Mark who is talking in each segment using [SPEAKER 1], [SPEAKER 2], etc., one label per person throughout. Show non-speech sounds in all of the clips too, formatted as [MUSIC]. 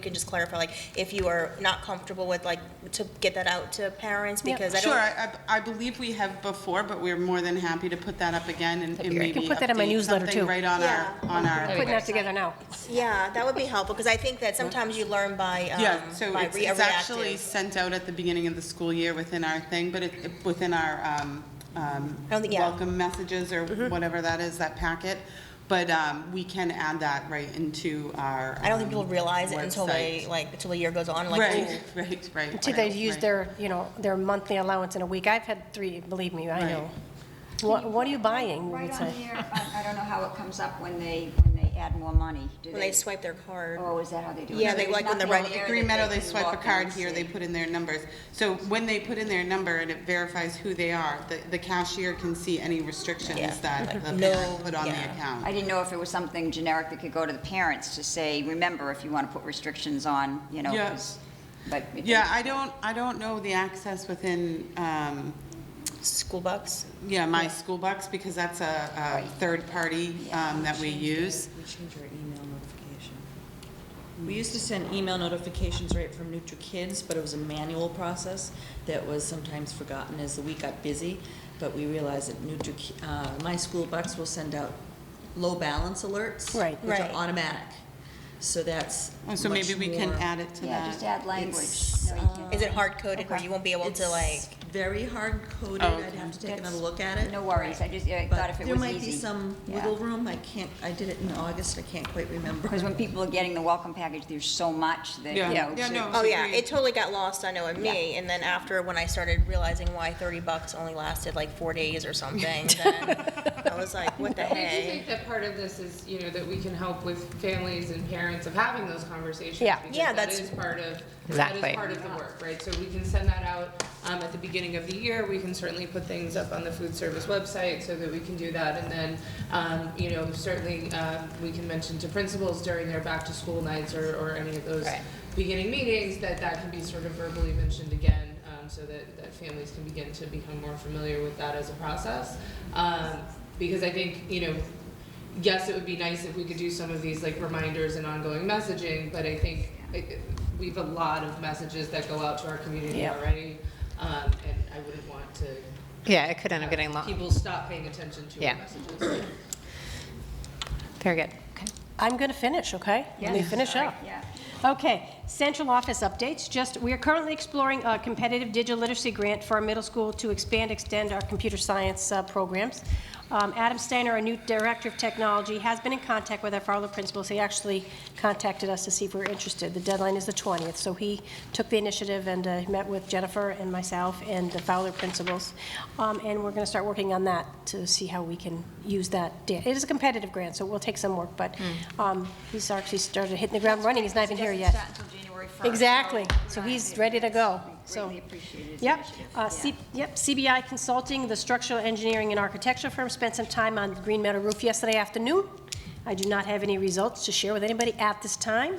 [SPEAKER 1] can just clarify, like, if you are not comfortable with, like, to get that out to parents, because I
[SPEAKER 2] Sure,
[SPEAKER 1] don't,
[SPEAKER 2] I, I I believe we have before, but we're more than happy to put that up again and and
[SPEAKER 3] great. You
[SPEAKER 2] maybe
[SPEAKER 3] can put that in my
[SPEAKER 2] update
[SPEAKER 3] newsletter,
[SPEAKER 2] something
[SPEAKER 3] too.
[SPEAKER 2] right on our, on our,
[SPEAKER 3] Putting that together now.
[SPEAKER 1] yeah, that would be helpful, because I think that sometimes you learn by,
[SPEAKER 2] yeah,
[SPEAKER 1] um,
[SPEAKER 2] so
[SPEAKER 1] by
[SPEAKER 2] it's,
[SPEAKER 1] re- a
[SPEAKER 2] it's actually
[SPEAKER 1] reactive.
[SPEAKER 2] sent out at the beginning of the school year within our thing, but it, it- within our, um, um,
[SPEAKER 1] I don't think- yeah.
[SPEAKER 2] welcome messages or
[SPEAKER 3] Mm-hmm.
[SPEAKER 2] whatever that is, that packet, but, um, we can add that right into our.
[SPEAKER 1] I don't think
[SPEAKER 2] um,
[SPEAKER 1] people realize it until they,
[SPEAKER 2] website.
[SPEAKER 1] like, until the year goes on, like, ooh.
[SPEAKER 2] Right, right, right.
[SPEAKER 3] Until
[SPEAKER 2] right,
[SPEAKER 3] they've used
[SPEAKER 2] right.
[SPEAKER 3] their, you know, their monthly allowance in a week. I've had three, believe me, I know. What, what are you buying?
[SPEAKER 4] Right
[SPEAKER 3] It's
[SPEAKER 4] on
[SPEAKER 3] like-
[SPEAKER 4] here, I I don't know how it comes up when they, when they add more money. Do
[SPEAKER 1] when they swipe their card.
[SPEAKER 4] Oh, is that how they do it?
[SPEAKER 1] Yeah,
[SPEAKER 4] So
[SPEAKER 1] they
[SPEAKER 4] there's
[SPEAKER 1] like when the
[SPEAKER 4] nothing
[SPEAKER 1] right-
[SPEAKER 4] there
[SPEAKER 2] At Green
[SPEAKER 4] that
[SPEAKER 2] Meadow, they
[SPEAKER 4] can
[SPEAKER 2] swipe
[SPEAKER 4] walk
[SPEAKER 2] a
[SPEAKER 4] in
[SPEAKER 2] card
[SPEAKER 4] and
[SPEAKER 2] here, they
[SPEAKER 4] see.
[SPEAKER 2] put in their numbers. So when they put in their number and it verifies who they are, the, the cashier can see any
[SPEAKER 1] Yeah,
[SPEAKER 2] restrictions that the
[SPEAKER 1] no,
[SPEAKER 2] parent put on the
[SPEAKER 1] yeah.
[SPEAKER 4] I
[SPEAKER 2] account.
[SPEAKER 4] didn't know if it was something generic that could go to the parents to say, remember, if you want to put restrictions on, you know,
[SPEAKER 2] Yeah.
[SPEAKER 4] 'cause- but. it
[SPEAKER 2] Yeah, I don't, I don't know the access within, um,
[SPEAKER 1] School bucks.
[SPEAKER 2] yeah, my school bucks, because that's a, a third party, um, that we use.
[SPEAKER 5] We change our email notification. We used to send email notifications right from NutriKids, but it was a manual process that was sometimes forgotten as the week got busy. But we realized that Nutri, uh, My School Bucks will send out low balance alerts.
[SPEAKER 3] Right.
[SPEAKER 5] Which are
[SPEAKER 1] Right.
[SPEAKER 5] automatic. So that's
[SPEAKER 2] Oh, So maybe
[SPEAKER 5] much
[SPEAKER 2] we can
[SPEAKER 5] more-
[SPEAKER 2] add it to
[SPEAKER 4] Yeah, just
[SPEAKER 2] that.
[SPEAKER 4] add language.
[SPEAKER 5] It's,
[SPEAKER 4] No, you can't.
[SPEAKER 1] Is it hard coded where
[SPEAKER 4] Okay.
[SPEAKER 1] you won't be able to, like,
[SPEAKER 5] It's very hard coded.
[SPEAKER 2] Oh,
[SPEAKER 5] I'd
[SPEAKER 2] okay.
[SPEAKER 5] have to take another look at it.
[SPEAKER 4] No worries, I just, I thought if it was easy.
[SPEAKER 5] But there might be some wiggle room. I can't, I did it in August. I can't quite remember.
[SPEAKER 2] [LAUGHS]
[SPEAKER 4] Because when people are getting the welcome package, there's so much that, you
[SPEAKER 2] Yeah.
[SPEAKER 4] know.
[SPEAKER 2] Yeah,
[SPEAKER 4] to-
[SPEAKER 2] no.
[SPEAKER 1] Oh, yeah,
[SPEAKER 2] Agreed.
[SPEAKER 1] it totally got lost, I know, in me, and then after, when I started realizing why thirty bucks only lasted like four days or something, then I was like, what the
[SPEAKER 6] I do
[SPEAKER 1] heck?
[SPEAKER 6] think that part of this is, you know, that we can help with families and parents of having those conversations.
[SPEAKER 3] Yeah.
[SPEAKER 6] because
[SPEAKER 1] Yeah, that's-
[SPEAKER 6] That is part of, that
[SPEAKER 3] Exactly.
[SPEAKER 6] is part of the work, right? So we can send that out um, at the beginning of the year. We can certainly put things up on the food service website so that we can do that. And then, um, you know, certainly, um, we can mention to principals during their back-to-school nights or, or any of those
[SPEAKER 1] Right.
[SPEAKER 6] beginning meetings, that that can be sort of verbally mentioned again, um, so that, that families can begin to become more familiar with that as a process. Um, because I think, you know, yes, it would be nice if we could do some of these like reminders and ongoing messaging, but I think it- we have a lot of messages that go out to our community
[SPEAKER 3] Yeah.
[SPEAKER 6] already, um, and I wouldn't want to.
[SPEAKER 7] Yeah, it could end up getting
[SPEAKER 6] have
[SPEAKER 7] long.
[SPEAKER 6] People stop paying attention to
[SPEAKER 7] Yeah.
[SPEAKER 6] our messages.
[SPEAKER 7] Very good.
[SPEAKER 3] I'm going to finish, okay? Let me finish up.
[SPEAKER 4] Yeah.
[SPEAKER 3] Okay, central office updates, just, we are currently exploring a competitive digital literacy grant for our middle school to expand, extend our computer science uh, programs. Um, Adam Steiner, our new director of technology, has been in contact with our Fowler principals. He actually contacted us to see if we were interested. The deadline is the 20th, so he took the initiative and uh, met with Jennifer and myself and the Fowler principals. Um, And we're going to start working on that to see how we can use that. da- It is a competitive grant, so it will take some work, but um, he's actually started hitting the ground running. He's not even here yet.
[SPEAKER 4] Doesn't start until January 1st, so-
[SPEAKER 3] Exactly. So he's ready to go. So-
[SPEAKER 4] Greatly appreciated his
[SPEAKER 3] Yep,
[SPEAKER 4] initiative.
[SPEAKER 3] Uh,
[SPEAKER 4] Yeah.
[SPEAKER 3] C- yep, CBI Consulting, the structural engineering and architecture firm, spent some time on the Green Meadow roof yesterday afternoon. I do not have any results to share with anybody at this time,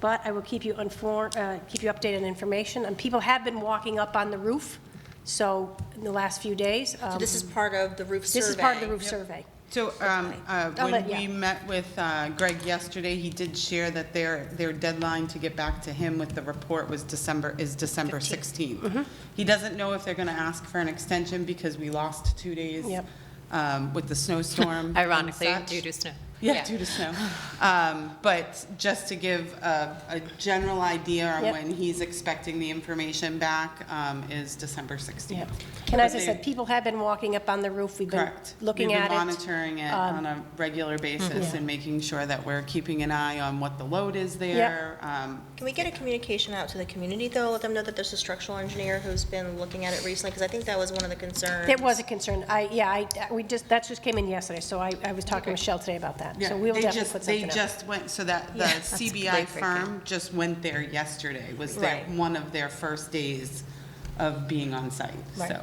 [SPEAKER 3] but I will keep you informed, keep you updated on information. And people have been walking up on the roof, so, in the last few days.
[SPEAKER 1] So
[SPEAKER 3] um,
[SPEAKER 1] this is part of the roof survey.
[SPEAKER 3] This is part of the roof survey.
[SPEAKER 2] So, um, uh,
[SPEAKER 3] I'll
[SPEAKER 2] when
[SPEAKER 3] let-
[SPEAKER 2] we
[SPEAKER 3] yeah.
[SPEAKER 2] met with uh, Greg yesterday, he did share that their, their deadline to get back to him with the report was December, is December
[SPEAKER 3] Mm-hmm.
[SPEAKER 2] 16th. He doesn't know if they're going to ask for an extension because we lost two days
[SPEAKER 3] Yep.
[SPEAKER 2] um, with
[SPEAKER 3] [LAUGHS]
[SPEAKER 2] the snowstorm and
[SPEAKER 7] Ironically,
[SPEAKER 2] such.
[SPEAKER 7] due to snow.
[SPEAKER 2] Yeah, due to snow. Um, But just to give a, a general idea on
[SPEAKER 3] Yep.
[SPEAKER 2] when he's expecting the information back um, is December 16th.
[SPEAKER 3] Yep. And as I
[SPEAKER 2] But they-
[SPEAKER 3] said, people have been walking up on the roof. We've been
[SPEAKER 2] Correct.
[SPEAKER 3] looking at it. um,
[SPEAKER 2] We've been monitoring it on a regular basis
[SPEAKER 3] Yeah.
[SPEAKER 2] and making sure that we're keeping an eye on what the load is there. um,
[SPEAKER 1] Can we get a communication out to the community, though? Let them know that there's a structural engineer who's been looking at it recently, because I think that was one of the concerns.
[SPEAKER 3] It was a concern. I, yeah, I, we just, that just came in yesterday, so I, I was talking to Michelle today about that.
[SPEAKER 2] yeah,
[SPEAKER 3] So we will
[SPEAKER 2] they
[SPEAKER 3] definitely
[SPEAKER 2] just-
[SPEAKER 3] put something
[SPEAKER 2] They
[SPEAKER 3] up.
[SPEAKER 2] just went, so that, the
[SPEAKER 3] Yeah, that's
[SPEAKER 2] CBI
[SPEAKER 7] great, great, great.
[SPEAKER 2] firm just went there yesterday, was their,
[SPEAKER 1] Right.
[SPEAKER 2] one of their first days of being on site,
[SPEAKER 3] Right.
[SPEAKER 2] so.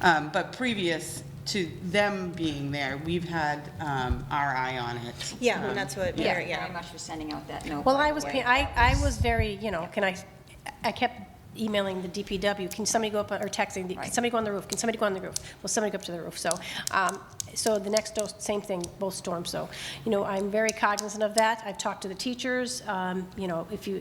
[SPEAKER 2] Um, But previous to them being there, we've had um, our eye on it.
[SPEAKER 1] Yeah, and that's what,
[SPEAKER 4] Yeah,
[SPEAKER 1] yeah,
[SPEAKER 4] very
[SPEAKER 1] yeah.
[SPEAKER 4] much for sending out that note.
[SPEAKER 3] Well,
[SPEAKER 4] by
[SPEAKER 3] I
[SPEAKER 4] the
[SPEAKER 3] was,
[SPEAKER 4] way.
[SPEAKER 3] pa- I, I was very, you know, can I, I kept emailing the DPW, can somebody go up, on- or texting, can
[SPEAKER 4] Right.
[SPEAKER 3] somebody go on the roof? Can somebody go on the roof? Will somebody go up to the roof? So, um, so the next, dose- same thing, both storms, so, you know, I'm very cognizant of that. I've talked to the teachers, um, you know, if you,